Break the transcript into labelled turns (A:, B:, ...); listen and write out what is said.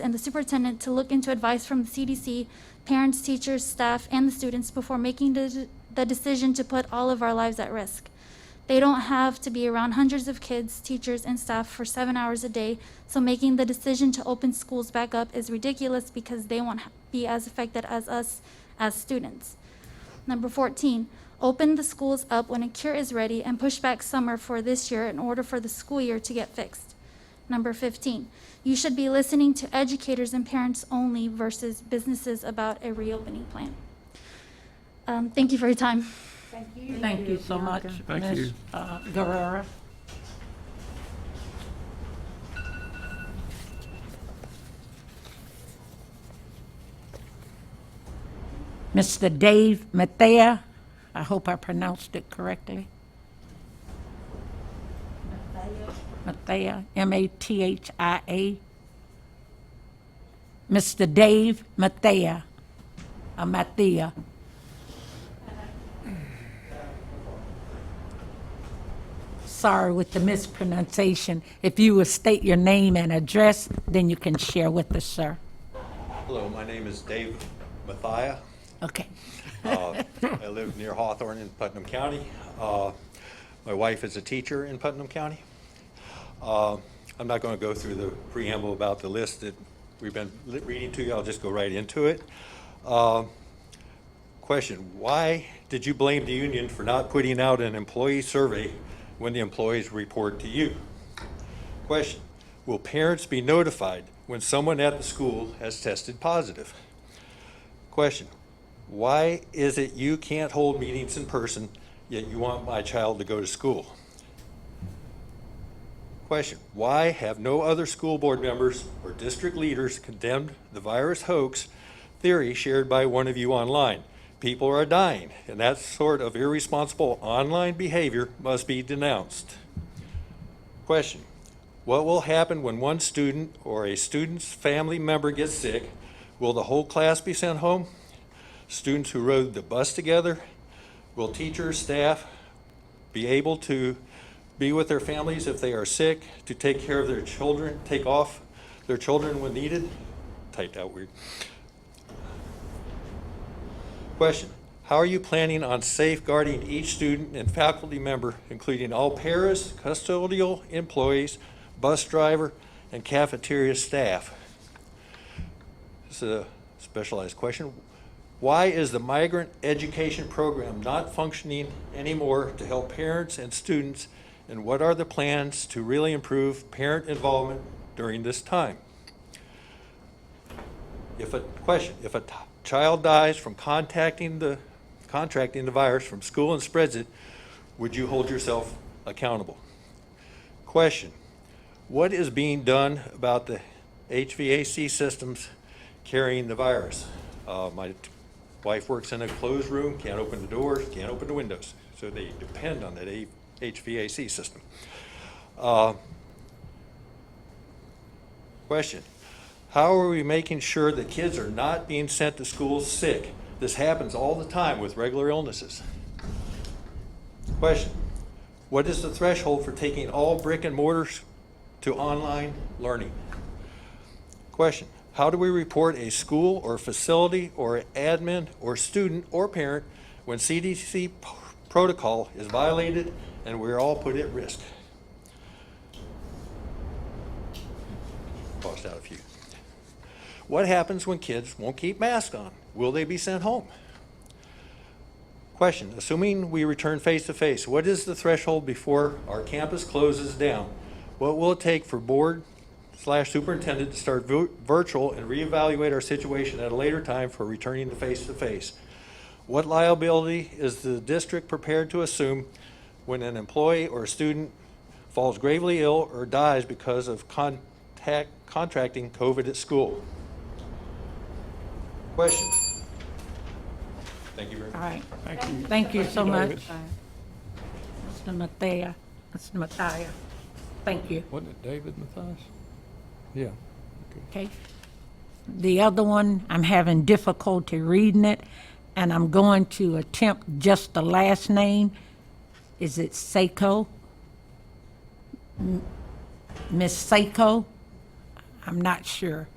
A: and the superintendent to look into advice from the CDC, parents, teachers, staff, and the students before making the, the decision to put all of our lives at risk. They don't have to be around hundreds of kids, teachers, and staff for seven hours a day, so making the decision to open schools back up is ridiculous because they won't ha- be as affected as us as students. Number 14, open the schools up when a cure is ready and push back summer for this year in order for the school year to get fixed. Number 15, you should be listening to educators and parents only versus businesses about a reopening plan. Um, Thank you for your time.
B: Thank you so much,
C: Thank
B: Ms.
C: you.
B: uh, Guerrero. Mr. Dave Mathia, I hope I pronounced it correctly. Mathia, M-A-T-H-I-A. Mr. Dave Mathia, uh, Mathia. Sorry with the mispronunciation. If you will state your name and address, then you can share with us, sir.
D: Hello, my name is Dave Mathia.
B: Okay.
D: I live near Hawthorne in Putnam County. Uh, My wife is a teacher in Putnam County. Uh, I'm not going to go through the preamble about the list that we've been li- reading to you. I'll just go right into it. Uh, Question, why did you blame the union for not putting out an employee survey when the employees report to you? Question, will parents be notified when someone at the school has tested positive? Question, why is it you can't hold meetings in person, yet you want my child to go to school? Question, why have no other school board members or district leaders condemned the virus hoax theory shared by one of you online? People are dying, and that sort of irresponsible online behavior must be denounced. Question, what will happen when one student or a student's family member gets sick? Will the whole class be sent home? Students who rode the bus together? Will teachers, staff be able to be with their families if they are sick, to take care of their children, take off their children when needed? Typed out weird. Question, how are you planning on safeguarding each student and faculty member, including all paras, custodial employees, bus driver, and cafeteria staff? This is a specialized question. Why is the migrant education program not functioning anymore to help parents and students? And what are the plans to really improve parent involvement during this time? If a, question, if a t- child dies from contacting the, contracting the virus from school and spreads it, would you hold yourself accountable? Question, what is being done about the HVAC systems carrying the virus? Uh, my t- wife works in a closed room, can't open the doors, can't open the windows, so they depend on that A- HVAC system. Uh, Question. How are we making sure that kids are not being sent to school sick? This happens all the time with regular illnesses. Question. What is the threshold for taking all brick and mortars to online learning? Question. How do we report a school or facility or admin or student or parent when CDC p- protocol is violated and we're all put at risk? Crossed out a few. What happens when kids won't keep masks on? Will they be sent home? Question, assuming we return face-to-face, what is the threshold before our campus closes down? What will it take for board slash superintendent to start vu- virtual and reevaluate our situation at a later time for returning to face-to-face? What liability is the district prepared to assume when an employee or student falls gravely ill or dies because of contact, contracting COVID at school? Question? Thank you very much.
B: All right. Thank you so much. Mr. Mathia, Mr. Mathia, thank you.
C: Wasn't it David Mathias? Yeah.
B: Okay. The other one, I'm having difficulty reading it, and I'm going to attempt just the last name. Is it Seiko? M- Miss Seiko? I'm not sure.